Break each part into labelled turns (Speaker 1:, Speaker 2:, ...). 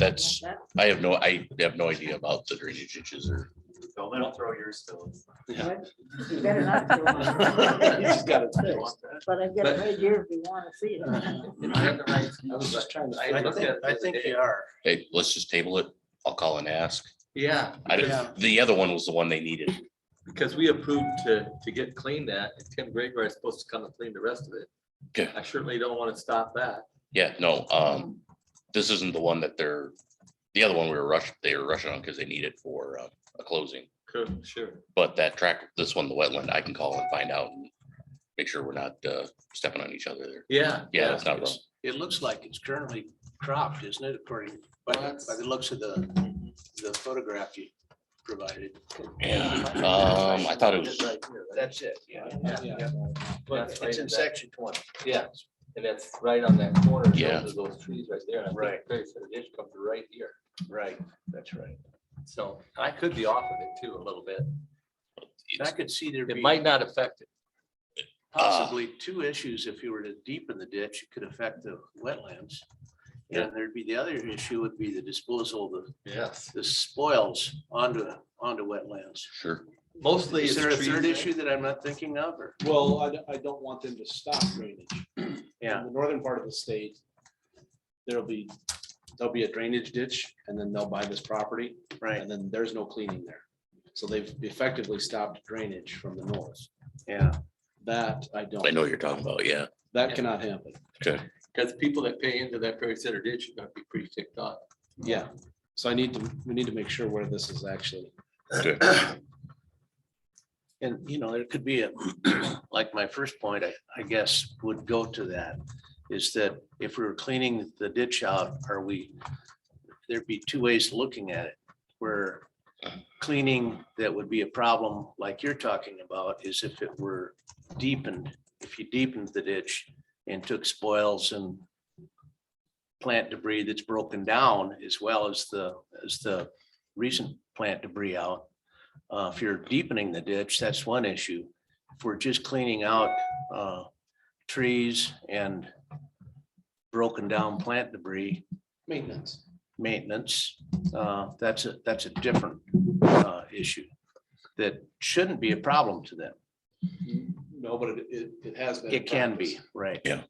Speaker 1: that's, I have no, I have no idea about the drainage ditches or.
Speaker 2: Phil, they don't throw yours still.
Speaker 3: You better not do
Speaker 2: You
Speaker 3: it.
Speaker 2: just got it fixed.
Speaker 3: But I've got it right here if you want to see it.
Speaker 4: I was just trying to.
Speaker 5: I
Speaker 4: find
Speaker 5: looked
Speaker 4: it
Speaker 5: at it the
Speaker 4: the other day.
Speaker 5: they are.
Speaker 1: Hey, let's just table it. I'll call and ask.
Speaker 4: Yeah,
Speaker 1: I
Speaker 5: Yeah.
Speaker 1: didn't, the other one was the one they needed.
Speaker 4: because we approved to, to get cleaned that, and Tim Gregory is supposed to come and clean the rest of it.
Speaker 1: Okay.
Speaker 4: I certainly don't want to stop that.
Speaker 1: Yeah, no, um, this isn't the one that they're, the other one we were rushed, they were rushing on because they need it for uh, a closing.
Speaker 4: Cool, Sure.
Speaker 1: But that track, this one, the wetland, I can call and find out and make sure we're not uh, stepping on each other there.
Speaker 4: Yeah.
Speaker 1: Yeah, that's not wrong.
Speaker 5: It looks like it's currently cropped, isn't it, according, by, the- by the looks of the, the photograph you provided.
Speaker 1: Yeah, um, I thought it was,
Speaker 5: Right here, right?
Speaker 6: That's it, yeah.
Speaker 5: Yeah.
Speaker 4: That's
Speaker 6: It's in
Speaker 4: right.
Speaker 6: section twenty.
Speaker 4: Yeah, and that's right on that corner. those
Speaker 1: Yeah.
Speaker 4: are Those trees right there. and I think
Speaker 6: Right.
Speaker 4: Barry said it just comes right here.
Speaker 6: Right, that's right.
Speaker 4: So I could be off of it too a little bit.
Speaker 5: And I could see there
Speaker 4: It
Speaker 5: be
Speaker 4: might not affect it.
Speaker 5: possibly two issues. If you were to deepen the ditch, it could affect the wetlands.
Speaker 1: Yeah.
Speaker 5: And there'd be, the other issue would be the disposal of the,
Speaker 4: Yes.
Speaker 5: the spoils onto, onto wetlands.
Speaker 1: sure,
Speaker 4: Mostly.
Speaker 5: Is
Speaker 4: it's
Speaker 5: there a
Speaker 4: trees,
Speaker 5: third
Speaker 4: right?
Speaker 5: issue that I'm not thinking of, or?
Speaker 7: Well, I, don't- I don't want them to stop drainage.
Speaker 5: Yeah.
Speaker 7: In the northern part of the state, there'll be, there'll be a drainage ditch and then they'll buy this property.
Speaker 5: Right.
Speaker 7: And then there's no cleaning there. So they've effectively stopped drainage from the north.
Speaker 5: Yeah.
Speaker 7: That I
Speaker 1: I know
Speaker 7: don't,
Speaker 1: what you're talking about, yeah.
Speaker 7: that cannot happen.
Speaker 4: Because people that pay into that Perry Center ditch are gonna be pretty ticked off.
Speaker 7: Yeah. So I need to, we need to make sure where this is actually.
Speaker 1: Good.
Speaker 5: And, you know, there could be a, like my first point, I, I guess, would go to that, is that if we we're cleaning the ditch out, are we, there'd be two ways to looking at it, where cleaning that would be a problem, like you're talking about, is if it were deepened, if you deepened the ditch and took spoils and plant debris that's broken down, as well as the, as the recent plant debris out, uh, if you're deepening the ditch, that's one issue. If we're just cleaning out, uh, trees and broken down plant debris,
Speaker 7: Maintenance.
Speaker 5: maintenance, uh, that's a, that's a different, uh, issue that shouldn't be a problem to them.
Speaker 7: No, but it, it, it has been.
Speaker 5: It can be, right.
Speaker 1: Yeah.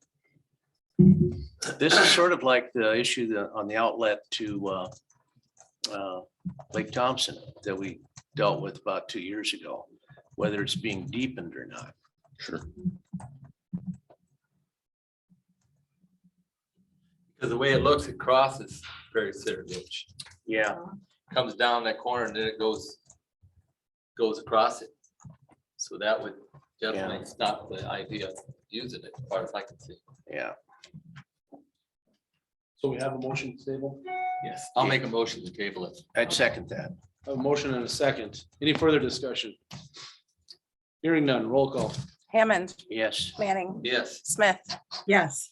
Speaker 5: This is sort of like the issue that on the outlet to uh, uh, Lake Thompson that we dealt with about two years ago, whether it's being deepened or not.
Speaker 1: Sure.
Speaker 4: Because the way it looks, it crosses Perry Center ditch,
Speaker 5: Yeah.
Speaker 4: comes down that corner and then it goes, goes across it. So that would definitely stop the idea of using it, as far as I can see.
Speaker 5: Yeah,
Speaker 7: So we have a motion to table?
Speaker 4: Yes. I'll make a motion to table it.
Speaker 5: I'd second that.
Speaker 7: A motion and a second. Any further discussion? Hearing none, roll call.
Speaker 8: Hammond,
Speaker 5: Yes.
Speaker 8: Manning,
Speaker 4: Yes,
Speaker 8: Smith,
Speaker 3: Yes.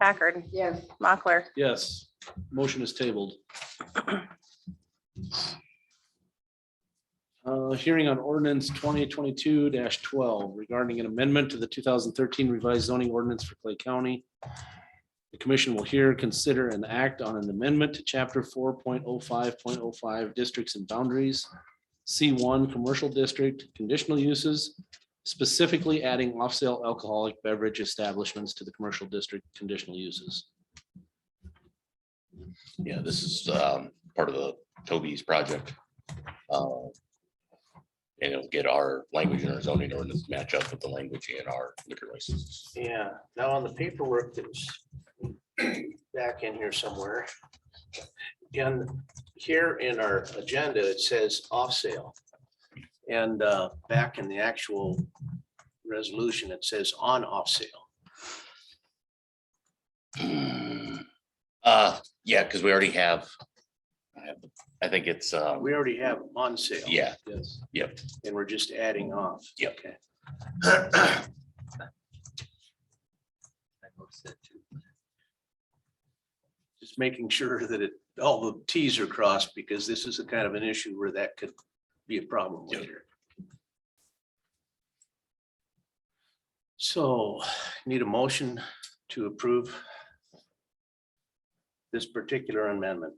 Speaker 8: Packard,
Speaker 3: Yes.
Speaker 8: Mochler.
Speaker 7: Yes, motion is tabled. Uh, Hearing on ordinance twenty twenty-two twelve regarding an amendment to the two thousand thirteen revised zoning ordinance for Clay County. The commission will hear, consider, and act on an amendment to chapter four point oh five point oh five districts and boundaries. C one, commercial district, conditional uses, specifically adding off-sale alcoholic beverage establishments to the commercial district conditional uses.
Speaker 1: Yeah, this is um, part of the Toby's project. Uh, And it'll get our language and our zoning ordinance match up with the language in our liquor licenses.
Speaker 5: Yeah, now on the paperwork that's back in here somewhere. And here in our agenda, it says off sale. And uh, back in the actual resolution, it says on off sale.
Speaker 1: Uh, yeah, because we already have. I have- I think it's, uh,
Speaker 5: We already have on sale.
Speaker 1: yeah,
Speaker 7: Yes.
Speaker 1: yep,
Speaker 5: And we're just adding off.
Speaker 1: Yep.
Speaker 5: Okay. Just making sure that it, all the Ts are crossed because this is a kind of an issue where that could be a problem
Speaker 1: Yep.
Speaker 5: later. So need a motion to approve this particular amendment.